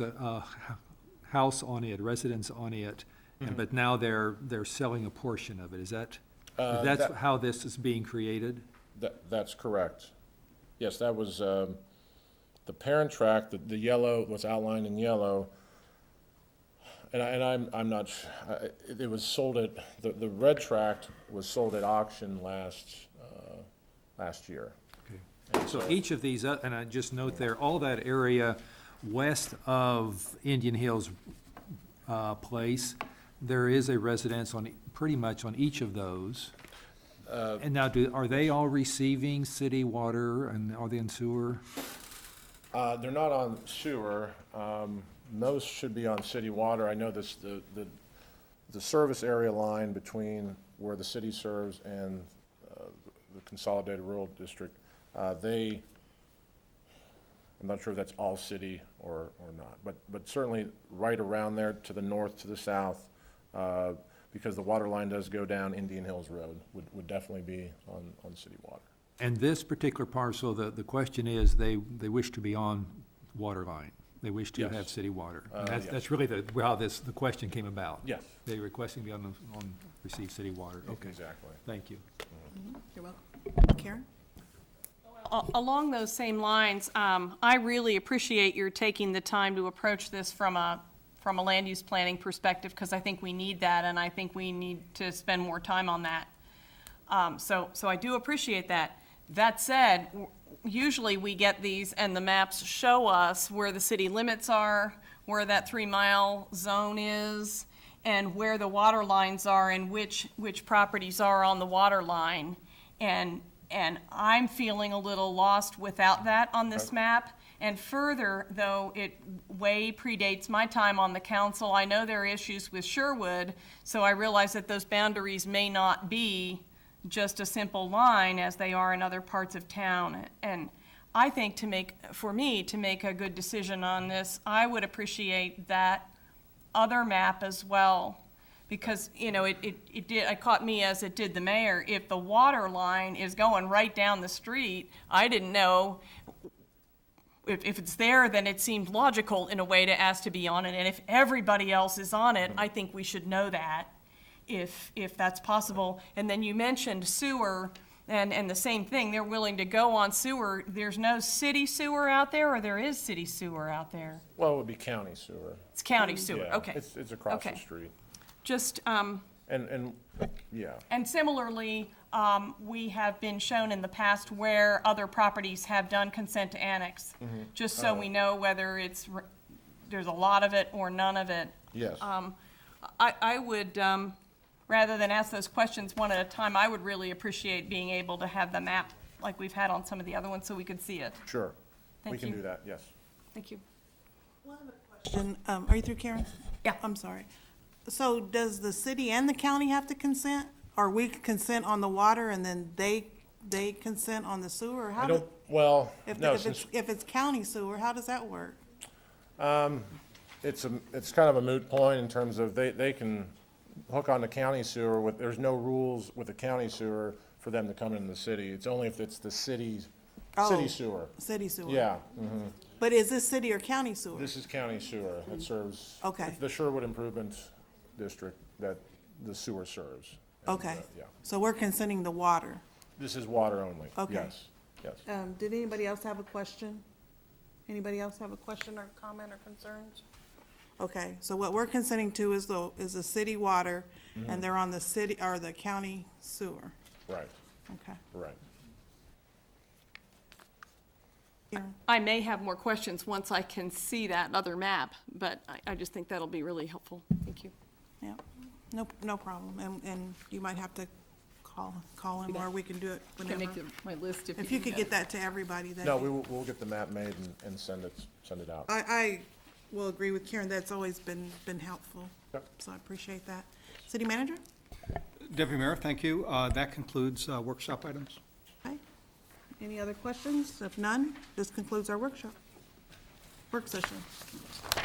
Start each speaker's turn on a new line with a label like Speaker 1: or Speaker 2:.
Speaker 1: the, uh, h- house on it, residence on it,
Speaker 2: Mm-hmm.
Speaker 1: and, but now they're, they're selling a portion of it, is that,
Speaker 2: Uh,
Speaker 1: that's
Speaker 2: that-
Speaker 1: how this is being created?
Speaker 2: That, that's correct. Yes, that was, um, the parent tract, the, the yellow, what's outlined in yellow. And I, and I'm, I'm not, s- I- I- it was sold at, the, the red tract was sold at auction last, uh, last year.
Speaker 1: Okay. So each of these, uh, and I just note there, all that area west of Indian Hills uh, Place, there is a residence on, e- pretty much on each of those.
Speaker 2: Uh,
Speaker 1: And now, do, are they all receiving city water and are they in sewer?
Speaker 2: Uh, they're not on sewer. Um, most should be on city water. I know this, the, the, the service area line between where the city serves and, uh, the Consolidated Rural District, uh, they, I'm not sure if that's all city or, or not, but, but certainly right around there to the north, to the south, uh, because the water line does go down Indian Hills Road, would, would definitely be on, on city water.
Speaker 1: And this particular parcel, the, the question is, they, they wish to be on water line. They wish to
Speaker 2: Yes.
Speaker 1: have city water.
Speaker 2: Uh,
Speaker 1: And that's,
Speaker 2: yes.
Speaker 1: that's really the, how this, the question came about.
Speaker 2: Yes.
Speaker 1: They requesting to be on, the- on, receive city water. Okay,
Speaker 2: Exactly.
Speaker 1: thank you.
Speaker 3: You're welcome. Karen?
Speaker 4: A- Along those same lines, um, I really appreciate your taking the time to approach this from a, from a land use planning perspective, because I think we need that, and I think we need to spend more time on that. Um, So, so I do appreciate that. That said, w- usually we get these, and the maps show us where the city limits are, where that three-mile zone is, and where the water lines are, and which, which properties are on the water line. And, and I'm feeling a little lost without that on this map. And further, though, it way predates my time on the council, I know there are issues with Sherwood, so I realize that those boundaries may not be just a simple line as they are in other parts of town. And I think to make, for me, to make a good decision on this, I would appreciate that other map as well. Because, you know, it, it, it did, it caught me as it did the mayor. If the water line is going right down the street, I didn't know. If, if it's there, then it seemed logical in a way to ask to be on it. And if everybody else is on it, I think we should know that if, if that's possible. And then you mentioned sewer and, and the same thing, they're willing to go on sewer. There's no city sewer out there or there is city sewer out there?
Speaker 2: Well, it would be county sewer.
Speaker 4: It's county sewer,
Speaker 2: Yeah,
Speaker 4: okay.
Speaker 2: It's, it's across the
Speaker 4: Okay.
Speaker 2: street.
Speaker 4: Just, um,
Speaker 2: And, and, yeah,
Speaker 4: and similarly, um, we have been shown in the past where other properties have done consent to annex.
Speaker 2: Mm-hmm.
Speaker 4: Just
Speaker 2: Oh.
Speaker 4: so we know whether it's, r- there's a lot of it or none of it.
Speaker 2: yes.
Speaker 3: Um,
Speaker 4: I, I would, um, rather than ask those questions one at a time, I would really appreciate being able to have the map like we've had on some of the other ones so we could see it.
Speaker 2: Sure. We
Speaker 4: Thank
Speaker 2: can
Speaker 4: you.
Speaker 2: do that, yes.
Speaker 4: Thank you.
Speaker 3: Question, um, are you through, Karen?
Speaker 4: Yeah.
Speaker 3: I'm sorry. So does the city and the county have to consent? Or we consent on the water and then they, they consent on the sewer? Or
Speaker 2: I
Speaker 3: How do-
Speaker 2: don't, well,
Speaker 3: If,
Speaker 2: no,
Speaker 3: if it's,
Speaker 2: since
Speaker 3: if it's county sewer, how does that work?
Speaker 2: it's, a- it's kind of a moot point in terms of they, they can hook on the county sewer with, there's no rules with the county sewer for them to come into the city. It's only if it's the city's,
Speaker 3: Oh.
Speaker 2: city sewer.
Speaker 3: City sewer?
Speaker 2: Yeah, mm-hmm.
Speaker 3: But is this city or county sewer?
Speaker 2: this is county sewer that serves.
Speaker 3: Okay.
Speaker 2: it's The Sherwood Improvement District that the sewer serves. And,
Speaker 3: Okay.
Speaker 2: uh, Yeah.
Speaker 3: So we're consenting the water.
Speaker 2: This is water only.
Speaker 3: Okay.
Speaker 2: Yes, yes.
Speaker 3: Um, did anybody else have a question? Anybody else have a question or comment or concerns? Okay, so what we're consenting to is the, is the city water,
Speaker 2: Mm-hmm.
Speaker 3: and they're on the city, or the county sewer,
Speaker 2: Right,
Speaker 3: okay.
Speaker 2: right.
Speaker 3: Karen?
Speaker 4: I may have more questions once I can see that other map, but I, I just think that'll be really helpful. Thank you.
Speaker 3: Yeah, no, no problem, and, and you might have to call, call him, or we can do it whenever.
Speaker 4: my list
Speaker 3: If you could get that to everybody, that.
Speaker 2: No, we will, we'll get the map made and, and send it, send it out.
Speaker 3: I, I will agree with Karen, that's always been, been helpful,
Speaker 2: Yep.
Speaker 3: so I appreciate that. City manager?
Speaker 5: Deputy Mayor, thank you. Uh, That concludes uh, workshop items.
Speaker 3: Okay. Any other questions? If none, this concludes our workshop, work session.